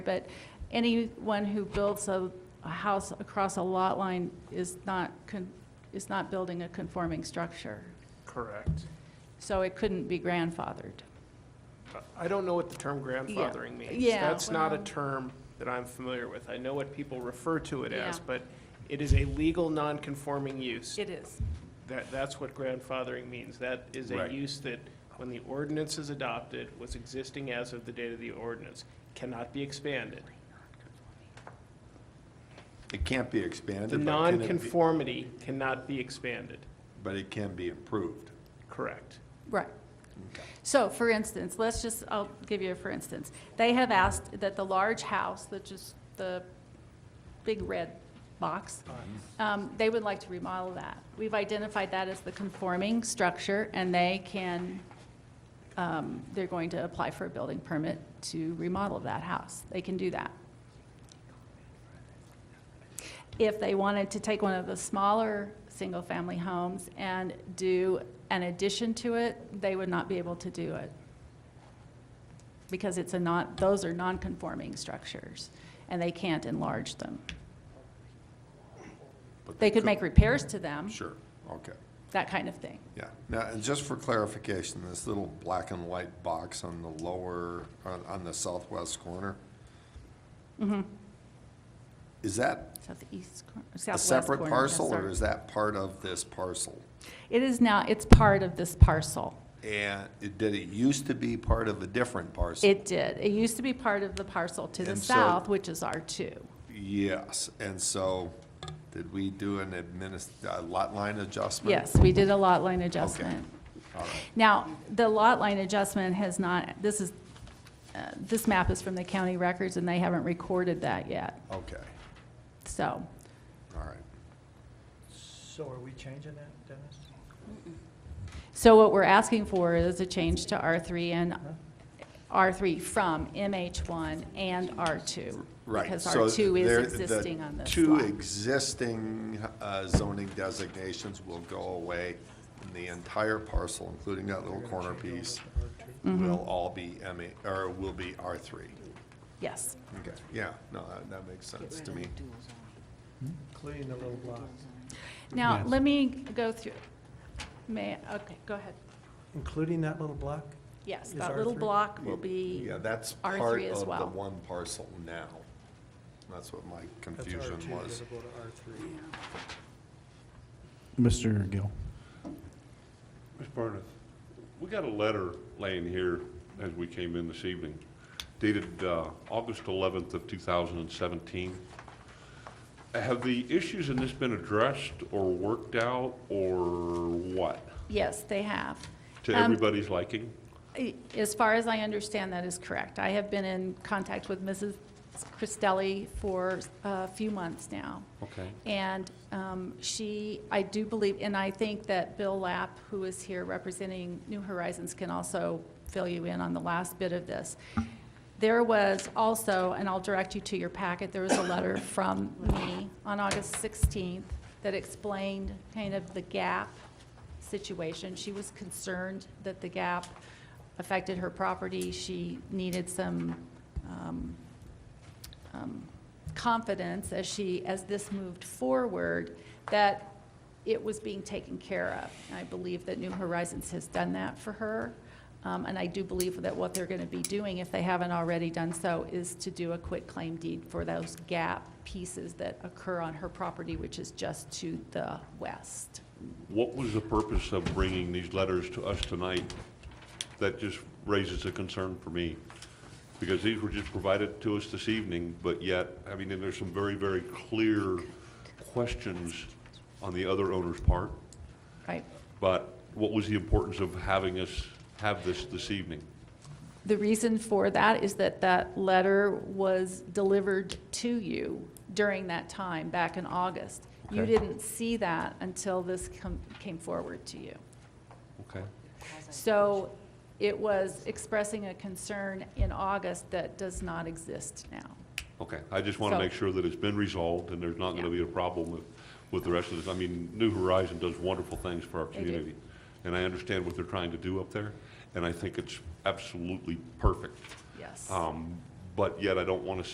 but anyone who builds a, a house across a lot line is not, con- is not building a conforming structure. Correct. So it couldn't be grandfathered. I don't know what the term grandfathering means. Yeah, That's not a well- term that I'm familiar with. I know what people refer to it as, Yeah. but it is a legal non-conforming use. It is. That, that's what grandfathering means. That is a Right. use that, when the ordinance is adopted, was existing as of the date of the ordinance, cannot be expanded. It can't be expanded. The but can it be- nonconformity cannot be expanded. But it can be improved. Correct. Right. So, for instance, let's just, I'll give you a for instance. They have asked that the large house, which is the big red box, um, they would like to remodel that. We've identified that as the conforming structure, and they can, um, they're going to apply for a building permit to remodel that house. They can do that. if they wanted to take one of the smaller single-family homes and do an addition to it, they would not be able to do it. Because it's a not, those are non-conforming structures, and they can't enlarge them. but They could make repairs to them, Sure, okay, that kind of thing. yeah. Now, and just for clarification, this little black and white box on the lower, on, on the southwest corner? Mm-hmm. Is that Southeast, cor- a southwest corner. separate yes, parcel, sir. or is that part of this parcel? It is now, it's part of this parcel. And it- did it used to be part of a different parcel? It did. It used to be part of the parcel to the And so- south, which is R2. Yes, and so, did we do an adminis, a lot line adjustment? Yes, we did a lot line adjustment. All right, Now, the lot line adjustment has not, this is, uh, this map is from the county records, and they haven't recorded that yet, okay, so. all right. So are we changing that, Dennis? So what we're asking for is a change to R3 and, R3 from MH1 and R2. Right. Because so R2 there- is the existing on this Two lot. existing uh, zoning designations will go away, and the entire parcel, including that little corner piece, Mm-hmm. will all be MA, or will be R3. Yes, Okay, yeah, no, that- that makes sense to me. Including the little block, now, let me go through, may, I- okay, go ahead. including that little block? Yes, Is that little R3? block will be, Yeah, that's R3 part as of the well. one parcel now. That's what my That's confusion R2, was. it'll go to R3. Mr. Gill. Ms. Barnett, we got a letter laying here as we came in this evening dated uh, August 11th of 2017. Have the issues in this been addressed or worked out or what? yes, they have. To Um, everybody's liking? As far as I understand, that is correct. I have been in contact with Mrs. Cristelli for a few months now. Okay. And um, she, I do believe, and I think that Bill Lapp, who is here representing New Horizons, can also fill you in on the last bit of this. There was also, and I'll direct you to your packet, there was a letter from me on August 16th that explained kind of the gap situation. She was concerned that the gap affected her property. She needed some um, um, confidence as she, as this moved forward, that it was being taken care of. And I believe that New Horizons has done that for her. Um, And I do believe that what they're going to be doing, if they haven't already done so, is to do a quit claim deed for those gap pieces that occur on her property, which is just to the west. What was the purpose of bringing these letters to us tonight? That just raises a concern for me, because these were just provided to us this evening, but yet, I mean, and there's some very, very clear questions on the other owner's part, Right? but what was the importance of having us have this this evening? The reason for that is that that letter was delivered to you during that time, back in August. You Okay. didn't see that until this com- came forward to you. Okay. So it was expressing a concern in August that does not exist now. Okay, I just want So- to make sure that it's been resolved and there's not going to be a problem with, with the rest of this. I mean, New Horizon does wonderful things for our do. community. And I understand what they're trying to do up there, and I think it's absolutely perfect. Yes. Oh, Um, But yet I don't want to see